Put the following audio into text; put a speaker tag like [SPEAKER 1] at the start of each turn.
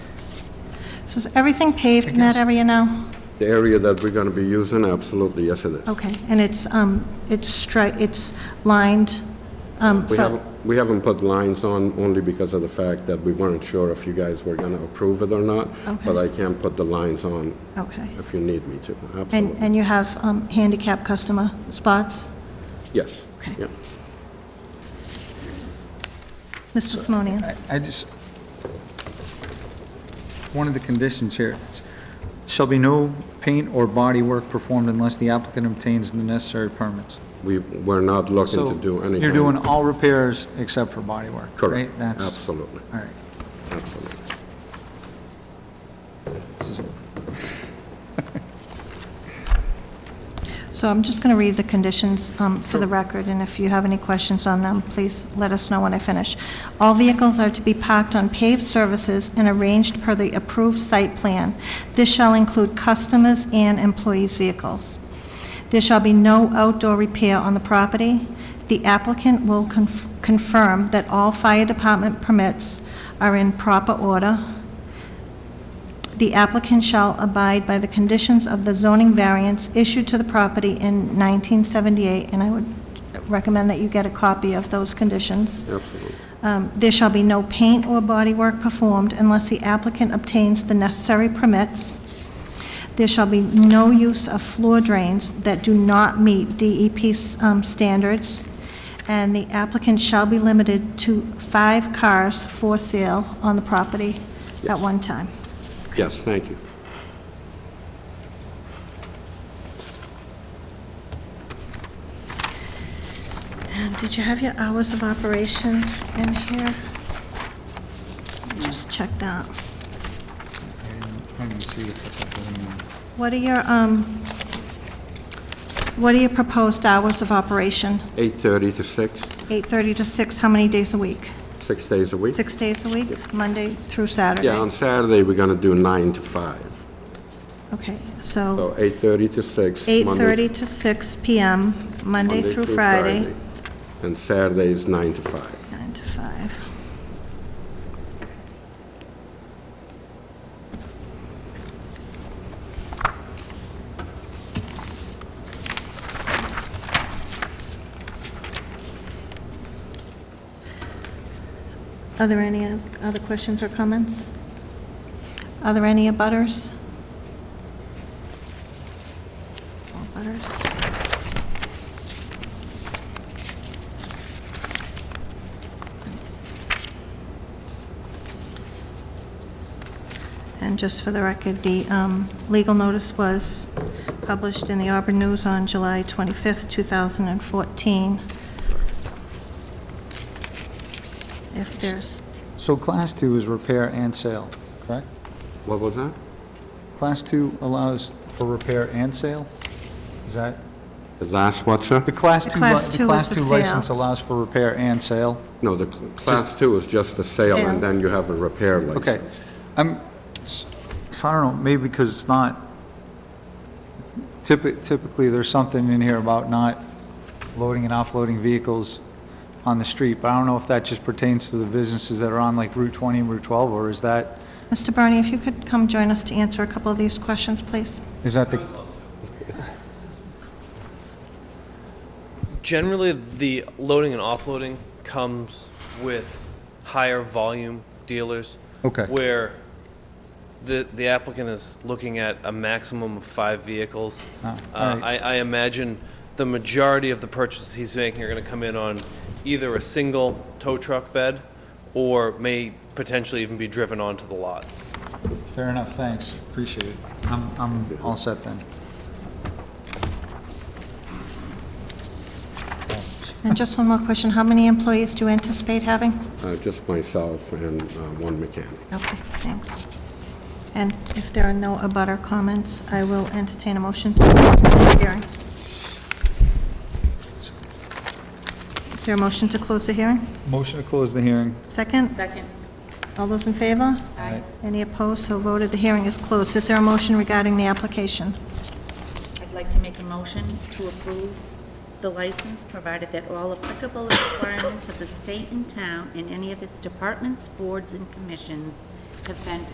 [SPEAKER 1] So is everything paved in that area now?
[SPEAKER 2] The area that we're going to be using, absolutely, yes it is.
[SPEAKER 1] Okay, and it's, um, it's stri, it's lined, um,
[SPEAKER 2] We
[SPEAKER 1] for,
[SPEAKER 2] haven't, we haven't put lines on only because of the fact that we weren't sure if you guys were going to approve it or not, but I can put the lines on
[SPEAKER 1] okay.
[SPEAKER 2] if you need me to,
[SPEAKER 1] And,
[SPEAKER 2] absolutely.
[SPEAKER 1] and you have, um, handicap customer spots?
[SPEAKER 2] Yes.
[SPEAKER 1] Okay.
[SPEAKER 2] yeah.
[SPEAKER 1] Mr. Simonian?
[SPEAKER 3] I- I just, one of the conditions here, is, shall be no paint or body work performed unless the applicant obtains the necessary permits.
[SPEAKER 2] We, we're not looking
[SPEAKER 3] So
[SPEAKER 2] to do anything.
[SPEAKER 3] You're doing all repairs except for body work, right?
[SPEAKER 2] Correct,
[SPEAKER 3] That's-
[SPEAKER 2] absolutely,
[SPEAKER 3] All right.
[SPEAKER 2] absolutely.
[SPEAKER 3] This is-
[SPEAKER 1] So I'm just going to read the conditions um, for the record, and if you have any questions on them, please let us know when I finish. All vehicles are to be parked on paved surfaces and arranged per the approved site plan. This shall include customers' and employees' vehicles. There shall be no outdoor repair on the property. The applicant will conf- confirm that all fire department permits are in proper order. The applicant shall abide by the conditions of the zoning variance issued to the property in 1978, and I would recommend that you get a copy of those conditions.
[SPEAKER 2] Absolutely.
[SPEAKER 1] Um, There shall be no paint or bodywork performed unless the applicant obtains the necessary permits. There shall be no use of floor drains that do not meet DEP um, standards, and the applicant shall be limited to five cars for sale on the property at one time.
[SPEAKER 2] Yes, thank you.
[SPEAKER 1] And Um, did you have your hours of operation in here? Just check that.
[SPEAKER 3] I didn't see it, but that doesn't mean-
[SPEAKER 1] What are your, um, what are your proposed hours of operation?
[SPEAKER 2] 8:30 to 6,
[SPEAKER 1] 8:30 to 6, how many days a week?
[SPEAKER 2] six days a week.
[SPEAKER 1] Six days a week, Monday through Saturday?
[SPEAKER 2] Yeah, on Saturday, we're going to do 9 to 5.
[SPEAKER 1] Okay,
[SPEAKER 2] So
[SPEAKER 1] so
[SPEAKER 2] 8:30 to 6. Monday-
[SPEAKER 1] 8:30 to 6 PM, Monday through Friday,
[SPEAKER 2] And Saturday is 9 to 5.
[SPEAKER 1] 9 to 5. Are there any oth- other questions or comments? Are there any abutters? All abutters. And just for the record, the um, legal notice was published in the Auburn News on July 25th, 2014. If there's,
[SPEAKER 3] So class two is repair and sale, correct?
[SPEAKER 2] What was that?
[SPEAKER 3] Class two allows for repair and sale? Is that,
[SPEAKER 2] The last what, sir?
[SPEAKER 3] the class
[SPEAKER 1] The
[SPEAKER 3] two,
[SPEAKER 1] class two
[SPEAKER 3] li- the
[SPEAKER 1] is
[SPEAKER 3] class
[SPEAKER 1] the
[SPEAKER 3] two
[SPEAKER 1] sale.
[SPEAKER 3] license allows for repair and sale?
[SPEAKER 2] No, the cl- class two is just the sale, and then
[SPEAKER 1] Sales.
[SPEAKER 2] you have a repair
[SPEAKER 3] Okay,
[SPEAKER 2] license.
[SPEAKER 3] I'm, s- so I don't know, maybe because it's not, typi- typically, there's something in here about not loading and offloading vehicles on the street, but I don't know if that just pertains to the businesses that are on like Route 20 and Route 12, or is that,
[SPEAKER 1] Mr. Barney, if you could come join us to answer a couple of these questions, please.
[SPEAKER 3] is that the,
[SPEAKER 4] Generally, the loading and offloading comes with higher volume dealers.
[SPEAKER 3] Okay.
[SPEAKER 4] Where the, the applicant is looking at a maximum of five vehicles.
[SPEAKER 3] Ah,
[SPEAKER 4] Uh,
[SPEAKER 3] alright.
[SPEAKER 4] I, I imagine the majority of the purchases he's making are gonna come in on either a single tow truck bed or may potentially even be driven onto the lot.
[SPEAKER 3] fair enough, thanks, appreciate it. I'm, I'm all set then.
[SPEAKER 1] And just one more question, how many employees do you anticipate having?
[SPEAKER 2] Uh, Just myself and uh, one mechanic.
[SPEAKER 1] Okay, thanks. And if there are no abutter comments, I will entertain a motion to close the hearing. Is there a motion to close the hearing?
[SPEAKER 3] Motion to close the hearing.
[SPEAKER 1] Second?
[SPEAKER 5] Second.
[SPEAKER 1] All those in favor?
[SPEAKER 5] Aye.
[SPEAKER 1] Any opposed? So voted. The hearing is closed. Is there a motion regarding the application?
[SPEAKER 5] I'd like to make a motion to approve the license, provided that all applicable requirements of the state and town and any of its departments, boards, and commissions have been